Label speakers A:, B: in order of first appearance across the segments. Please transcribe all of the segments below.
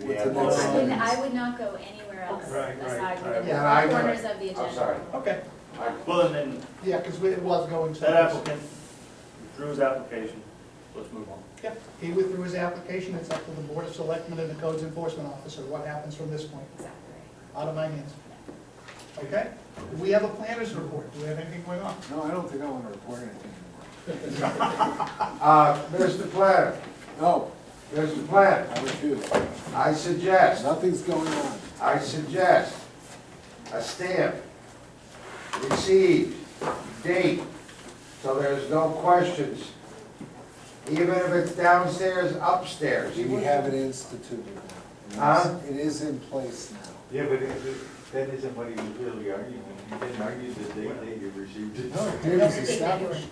A: have
B: Well,
A: this.
B: I
C: Um,
B: would, I would not go anywhere else
C: Right, right,
B: aside from
C: right.
B: the
D: Yeah, I know.
B: corners of the agenda.
A: I'm sorry.
C: Okay,
A: I-
C: well, and then
D: Yeah, because it was going to.
C: that applicant withdrew his application, let's move on.
D: Yeah, he withdrew his application, it's up to the Board of Selectmen and the Codes Enforcement Officer, what happens from this point,
B: Exactly.
D: out of my hands. Okay? We have a planner's report, do we have anything going on?
E: No, I don't think I want to report anything anymore.
A: Uh, Mr. Planner,
E: No,
A: Mr. Planner,
E: I refuse.
A: I suggest,
E: Nothing's going on.
A: I suggest a stamp, received, date, so there's no questions. Even if it's downstairs, upstairs.
E: We have it instituted now.
A: Huh?
E: It is in place now.
F: Yeah, but it- it- that isn't what he was really arguing. He didn't argue the date that you received it.
E: No, it
D: They
E: was
D: don't-
E: established.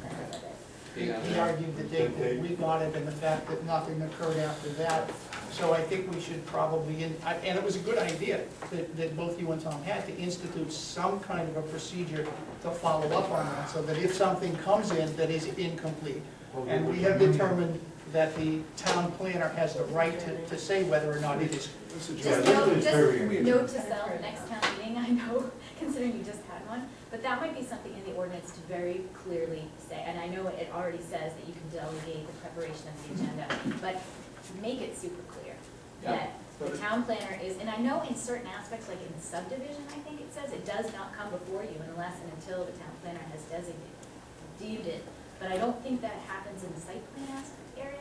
D: He he argued the date that we got it and the fact that nothing occurred after that. So I think we should probably, and I- and it was a good idea that, that both you and Tom had, to institute some kind of a procedure to follow up on that, so that if something comes in that is incomplete, and we have determined that the town planner has the right to, to say whether or not it is.
F: Yeah,
B: Just
F: this
B: note,
F: is very
B: just
F: weird.
B: note to self, next town meeting, I know, considering you just had one, but that might be something in the ordinance to very clearly say, and I know it already says that you can delegate the preparation of the agenda, but make it super clear that the town planner is, and I know in certain aspects, like in subdivision, I think it says, it does not come before you unless and until the town planner has designated deemed it, but I don't think that happens in the site plan as- area.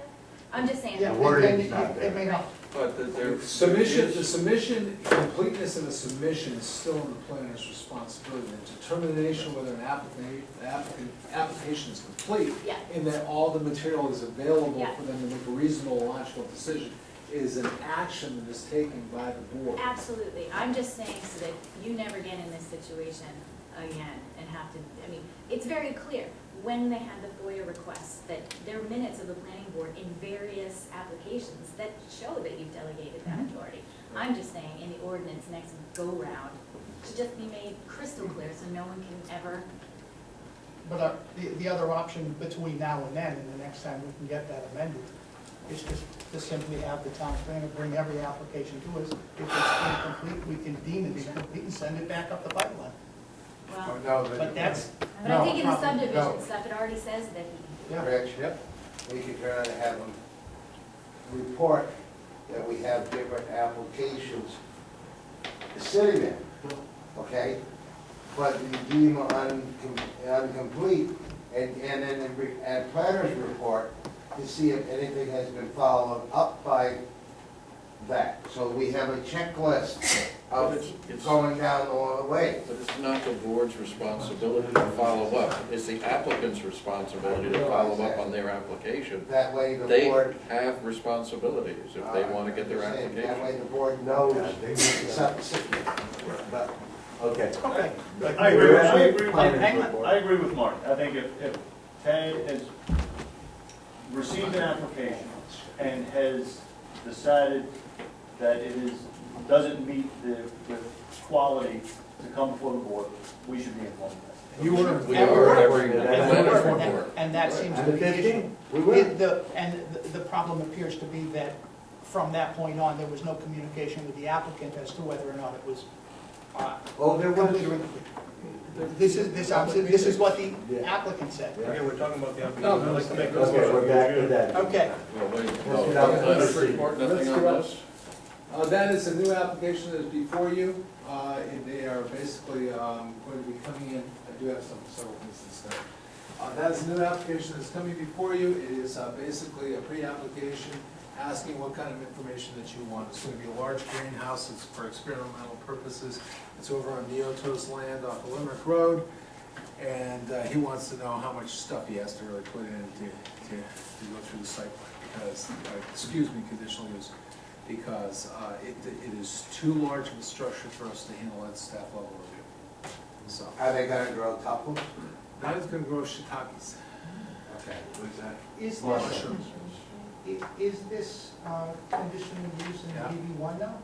B: I'm just saying.
D: Yeah,
F: The wording's
D: and- and
F: not
D: it-
F: there.
D: It may not.
G: But the- there.
E: Submission, the
G: is-
E: submission, completeness of the submission is still in the planner's responsibility. The determination whether an applicant, applicant, application is complete
B: Yeah.
E: and that all the material is available
B: Yeah.
E: for them to make a reasonable, logical decision is an action that is taken by the board.
B: Absolutely, I'm just saying so that you never get in this situation again and have to, I mean, it's very clear when they had the FOIA requests, that there are minutes of the planning board in various applications that show that you've delegated that authority. I'm just saying, in the ordinance next go-round, should just be made crystal clear so no one can ever,
D: But our- the, the other option between now and then, and the next time we can get that amended, is just to simply have the town planner bring every application to us. If it's incomplete, we can deem it incomplete and send it back up the pipeline.
A: Oh,
B: well,
D: But that's,
B: but I think in the
D: No, problem,
B: subdivision
A: no.
B: stuff, it already says that he,
D: yeah,
A: Rich, we could try to have them report that we have different applications sitting there, okay? But we deem uncom- incomplete, and, and then the re- and planner's report to see if anything has been followed up by that. So we have a checklist
G: But
A: of
G: it's- it's-
A: going down all the way.
G: But it's not the board's responsibility to follow up. It's the applicant's responsibility to follow up on their application.
A: That way the
G: They
A: board.
G: have responsibilities if they want to get their
A: Uh, I'm saying, That
G: application.
A: way the board knows
F: Yeah, they-
A: something, but
F: Okay.
D: okay.
F: But
C: I agree, with- I
F: you're-
C: agree, with-
F: Planner's
C: hang on,
F: report.
C: I agree with Mark, I think if, if Ted has received an application and has decided that it is, doesn't meet the, the quality to come before the board, we should be informed of that.
E: You want
G: We
D: And
G: are
D: we're-
G: every,
F: and
D: And
F: we're-
G: planner's
D: that-
G: report.
D: And that seems to be the issue.
A: we will.
D: It- the- And the- the problem appears to be that from that point on, there was no communication with the applicant as to whether or not it was uh,
A: Oh, there was,
D: complete or incomplete. This is, this, I'm- this is what the applicant said.
H: Okay, we're talking about the
E: No,
H: application,
E: no,
H: I'd like to make those.
F: Okay, we're back to that.
D: Okay,
G: Well, wait,
F: Let's
G: no,
F: get out
E: of
G: planner's
F: this.
G: report,
E: Let's
G: nothing on
E: get out.
G: this?
E: Uh, that is a new application that is before you, uh, and they are basically, um, going to be coming in, I do have some, several things to say. Uh, that is a new application that's coming before you, it is, uh, basically a pre-application, asking what kind of information that you want. It's gonna be a large greenhouse, it's for experimental purposes, it's over on Neotos land off of Limerick Road, and, uh, he wants to know how much stuff he has to really put in to, to, to go through the site plan, because, uh, excuse me, conditional use because uh, it, it is too large of a structure for us to handle at staff level review. So,
A: are they gonna grow couples?
E: now it's gonna grow shiitakes.
A: Okay.
F: What's that?
D: is this,
E: Mushrooms.
D: i- is this uh, conditional use in
E: Yeah.
D: DB one now?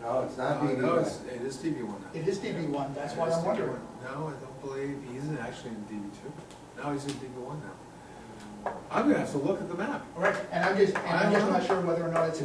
A: No, it's
E: Uh,
A: not being,
E: No, it's, it is DB one now.
D: It is DB one, that's why
E: It is
D: I'm wondering.
E: DB1. No, I don't believe, he isn't actually in DB two. No, he's in DB one now. I'm gonna have to look at the map.
D: Uh-huh. All right, and I'm just, and I'm just not sure whether or not it's a